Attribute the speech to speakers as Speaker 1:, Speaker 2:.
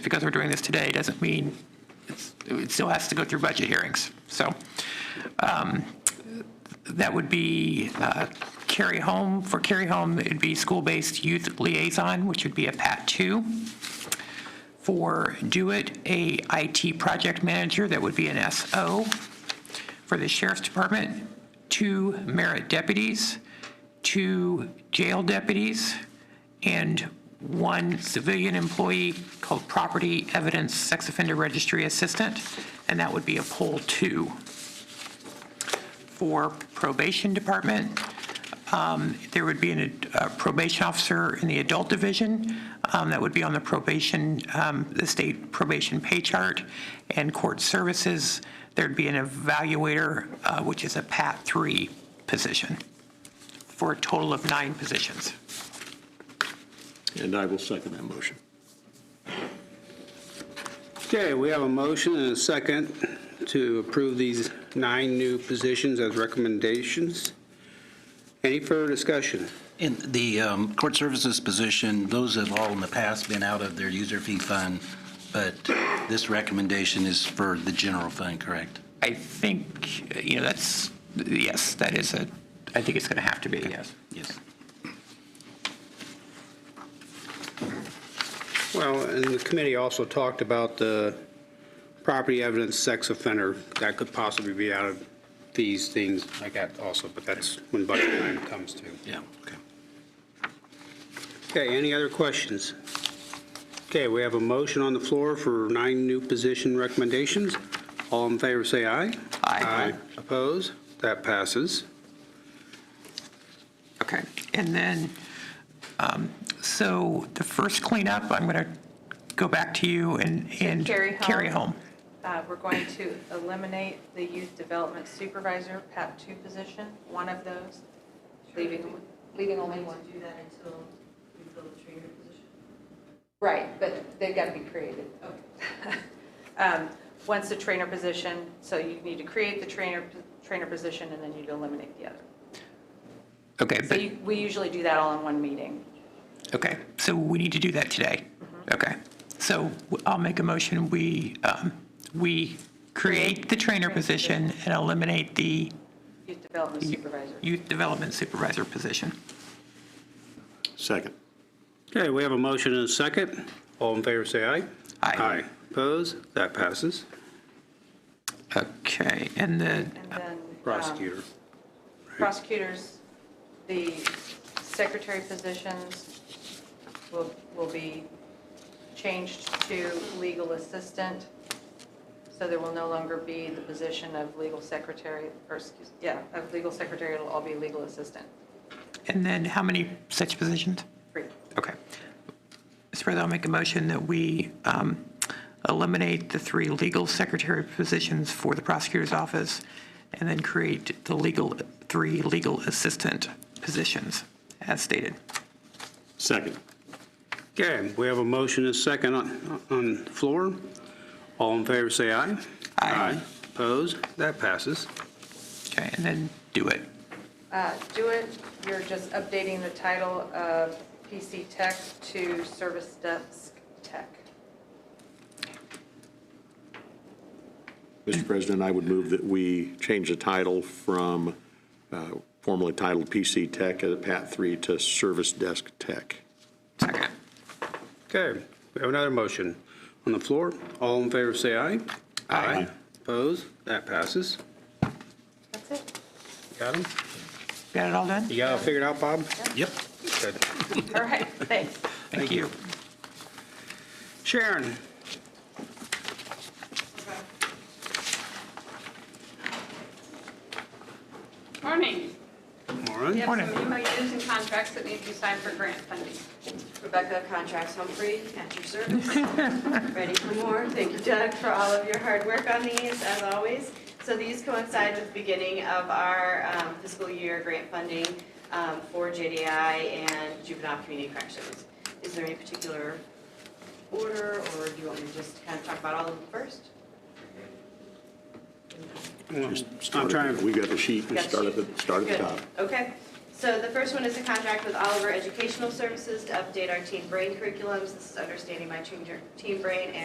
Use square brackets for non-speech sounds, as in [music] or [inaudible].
Speaker 1: because we're doing this today doesn't mean it's, it still has to go through budget hearings. So um, that would be uh, carry home. For carry home, it'd be school-based youth liaison, which would be a PAT two. For do it, a IT project manager, that would be an SO. For the sheriff's department, two merit deputies, two jail deputies, and one civilian employee called property evidence sex offender registry assistant, and that would be a poll two. For probation department, there would be an, a probation officer in the adult division. um, That would be on the probation, um, the state probation pay chart and court services. There'd be an evaluator, uh, which is a PAT 3 position, for a total of nine positions.
Speaker 2: And I will second that motion.
Speaker 3: Okay, we have a motion and a second to approve these nine new positions as recommendations. Any further discussion?
Speaker 4: In the um, court services position, those have all in the past been out of their user fee fund, but this recommendation is for the general fund, correct?
Speaker 1: I think, uh, you know, that's, yes, that is a, I think it's going to have to be, yes.
Speaker 4: Yes.
Speaker 3: Well, and the committee also talked about the property evidence sex offender. That could possibly be out of these things like that also, but that's when budget time comes to.
Speaker 4: Yeah, okay.
Speaker 3: Okay, any other questions? Okay, we have a motion on the floor for nine new position recommendations. All in favor, say aye.
Speaker 1: Aye.
Speaker 3: Oppose? That passes.
Speaker 1: Okay, and then, um, so the first cleanup, I'm going to go back to you and, and
Speaker 5: Carry home.
Speaker 1: carry home.
Speaker 5: Uh, We're going to eliminate the youth development supervisor, PAP 2 position, one of those, leaving, leaving only one.
Speaker 6: do that until we fill the trainer position?
Speaker 5: Right, but they've got to be created. [laughs] Um, Once the trainer position, so you need to create the trainer, trainer position, and then you'd eliminate the other.
Speaker 1: Okay,
Speaker 5: So
Speaker 1: but,
Speaker 5: you- we usually do that all in one meeting.
Speaker 1: okay, so we need to do that today. Okay, so w- I'll make a motion, we, um, we create the trainer position and eliminate the
Speaker 5: Youth development supervisor.
Speaker 1: youth development supervisor position.
Speaker 2: Second.
Speaker 3: Okay, we have a motion and a second. All in favor, say aye.
Speaker 1: Aye.
Speaker 3: Oppose? That passes.
Speaker 1: Okay, and then,
Speaker 5: And then. um,
Speaker 3: Prosecutor.
Speaker 5: prosecutors, the secretary positions will, will be changed to legal assistant. So there will no longer be the position of legal secretary, or, excuse, yeah, of legal secretary, it'll all be legal assistant.
Speaker 1: and then how many such positions?
Speaker 5: Free.
Speaker 1: Okay. Mr. President, I'll make a motion that we um, eliminate the three legal secretary positions for the prosecutor's office and then create the legal, three legal assistant positions as stated.
Speaker 2: Second.
Speaker 3: Okay, we have a motion and a second on, on the floor. All in favor, say aye.
Speaker 1: Aye.
Speaker 3: Oppose? That passes.
Speaker 1: Okay, and then do it.
Speaker 5: Uh, Do it, you're just updating the title of PC Tech to Service Desk Tech.
Speaker 2: Mr. President, I would move that we change the title from uh, formerly titled PC Tech at PAT 3 to Service Desk Tech.
Speaker 1: Second.
Speaker 3: Okay, we have another motion on the floor. All in favor, say aye. Aye. Oppose? That passes.
Speaker 5: That's it.
Speaker 3: Got him?
Speaker 1: Got it all done?
Speaker 3: You got it figured out, Bob?
Speaker 4: Yep.
Speaker 3: Good.
Speaker 5: All right, thanks.
Speaker 1: Thank you.
Speaker 3: Sharon?
Speaker 7: Morning.
Speaker 3: Lauren?
Speaker 7: We have
Speaker 1: Morning.
Speaker 7: some MOUs and contracts that need to be signed for grant funding.
Speaker 6: Rebecca Contracts Humphrey, at your service. Ready for more? Thank you, Doug, for all of your hard work on these, as always. So these coincide with the beginning of our um, fiscal year grant funding um, for JDI and juvenile community corrections. Is there any particular order, or do you want me to just kind of talk about all of them first?
Speaker 2: Just start at the-
Speaker 3: trying-
Speaker 2: We got the sheet,
Speaker 6: Got
Speaker 2: just start at the,
Speaker 6: you.
Speaker 2: start at the
Speaker 6: Good.
Speaker 2: top.
Speaker 6: Okay. So the first one is a contract with Oliver Educational Services to update our Team Brain curriculums. This is understanding my Team Team Brain and